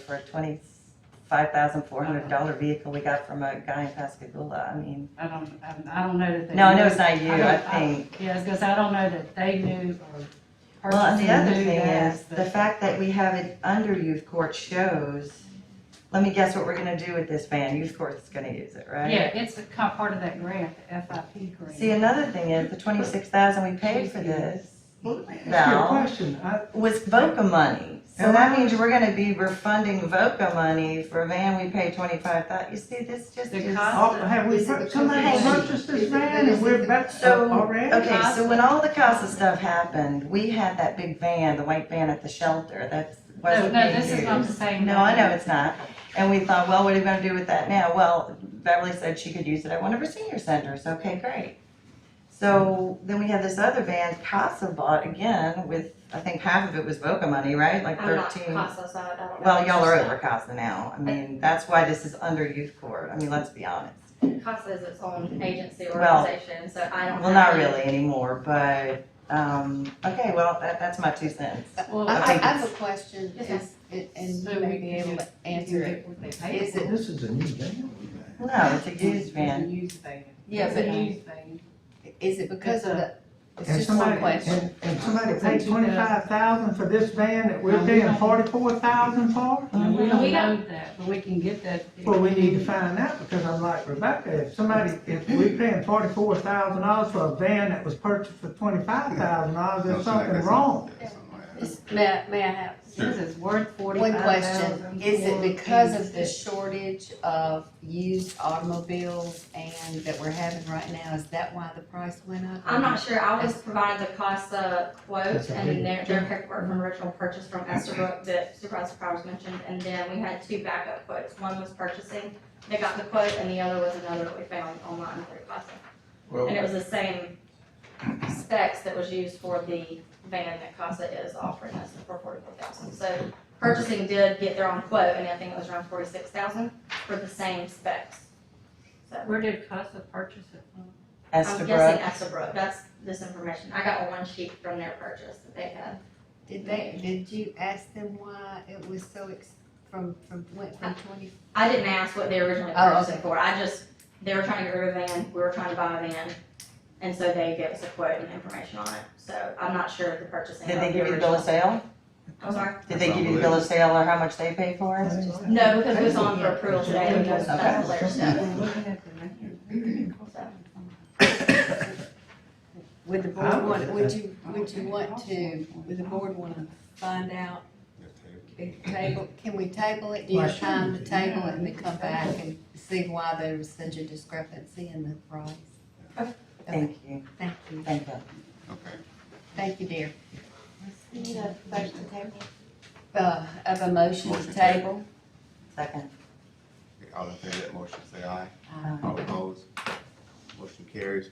for a twenty-five thousand four hundred dollar vehicle we got from a guy in Pascagoula, I mean, I don't, I- I don't know that they. no, I knew. know it's not you, don't- I think. Yeah, because I don't know that they knew or. Well, and the other purchasing knew thing that, is, the fact that we have it under youth court shows, let me guess what we're gonna do with this van, youth court's gonna use it, right? Yeah, it's a co- part of that grant, the FIP grant. See, another thing is, the twenty-six thousand we paid for this Well, let me ask you Val. a question. I- was VOCA money. So And that I- means we're gonna be refunding VOCA money for a van we paid twenty-five thousand. you see, this just The is. cost oh, Have we, Is it the somebody company? purchased Is this it- van and we're back So, uh, already? okay, so when all the CASA stuff happened, we had that big van, the white van at the shelter, that No, wasn't no, being this is not the used. same. No, I know it's not. And we thought, well, what are we gonna do with that now? Well, Beverly said she could use it at one of her senior centers, okay, great. So then we had this other van CASA bought again with, I think half of it was VOCA money, right? Like I'm not thirteen. CASA, so I don't know. Well, y'all are over CASA now. I mean, that's why this is under youth court. I mean, let's be honest. CASA is its own agency or Well, organization, so I don't. Well, not have any- really anymore, but, um, okay, well, that, that's my two cents. Well, I, I I think have a question, Yes, is, and- and So you we may be can able to answer it. What they paid Is for. it, This is a new van we got. No, it's a used van. It's a used van. Yeah, It's a but- used van. is it because of the, it's And just one somebody- question. And, and somebody It's paid in 2000. twenty-five thousand for this van that we're No, we paying don't. forty-four thousand for? Oh, And we Mhm. don't We know don't- that, but we can get that. Well, we need to find out, because I'm like Rebecca, if somebody, if we're paying forty-four thousand dollars for a van that was purchased for twenty-five thousand dollars, there's something wrong. Is- May, I- may I have This is worth one forty-five thousand. question? Is it because of the shortage of used automobiles and that we're having right now? Is that why the price went up? I'm not sure. I was provided the CASA quote That's a big and their, their paperwork from original purchase from Estabrook that Supervisor Powers mentioned. And then we had two backup quotes. One was purchasing, they got the quote, and the other was another that we found online through CASA. And it Well, was the same specs that was used for the van that CASA is offering us for forty-four thousand. So purchasing did get their own quote, and I think it was around forty-six thousand for the same specs. So Where did Casa purchase it from? I'm guessing Estabrook. Estabrook, that's this information. I got one sheet from their purchase that they had. Did they, did you ask them why it was so ex, from, from, went from twenty? I didn't ask what they originally Oh, purchased it okay. for. I just, they were trying to get rid of a van, we were trying to buy a van. And so they gave us a quote and information on it. So I'm not sure of the purchasing. Did of they the give you the bill of original. sale? I'm sorry? Did they give you the bill of sale or how much they paid for it? No, because it was on for approval today, and that's, that's the layer step. I'm looking at the record. Would the I board would- want, would you, would you want to, would the board wanna find out If Table, can we table it? Do you Why have time to shouldn't we? table it and then come back and see why there was such a discrepancy in the price? Okay. Thank you, Thank you, thank you. Okay. thank you, dear. You know, first to table. Uh, of a motion to Motion to table? Second. All in favor of that motion, say aye. Uh, All opposed? Motion carries.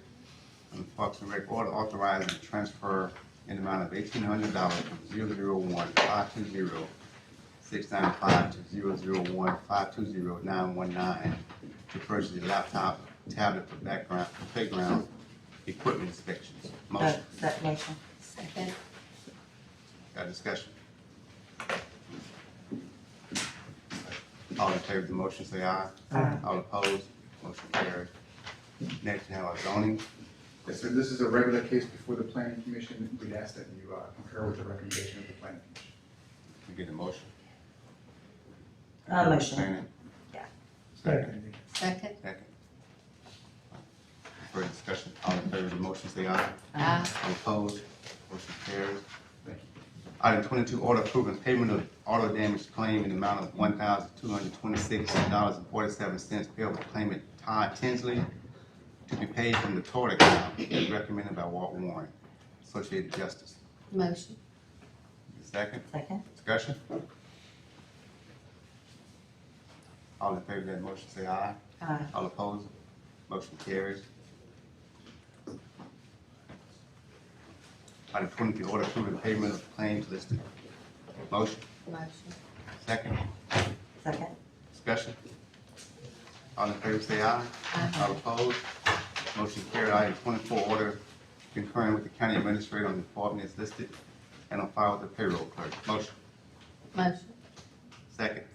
And Parks and Rec order authorizing the transfer in the amount of eighteen hundred dollars from zero zero one five two zero six nine five to zero zero one five two zero nine one nine to purchase the laptop, tablet for background, for playground equipment inspections. Uh, Motion, That motion. Second, got discussion? All in favor of the motion, say aye. Aye. All opposed, motion carries. Next, we have our zoning. Yes, sir, this is a regular case before the planning commission, we'd ask that you uh, concur with the recommendation of the planning commission. We get a motion. Uh, motion. Yeah. Second, Second. second, second. Further discussion, all in favor of the motion, say aye. aye, All opposed, motion carries. Item twenty-two, order approving payment of auto damage claim in the amount of one thousand two hundred twenty-six dollars and forty-seven cents payable to claimant Todd Tinsley to be paid from the tort account as recommended by Walt Warren, Associated Justice. motion, Second, Second. discussion? All in favor of that motion, say aye. Aye. All opposed? Motion carries. Item twenty-three, order approving payment of claims listed. Motion, motion, second, Second. discussion. All in favor, say aye. aye, All opposed? Motion carried. Item twenty-four, order concurring with the county administrator on the department is listed and on file with the payroll clerk. Motion, motion. second.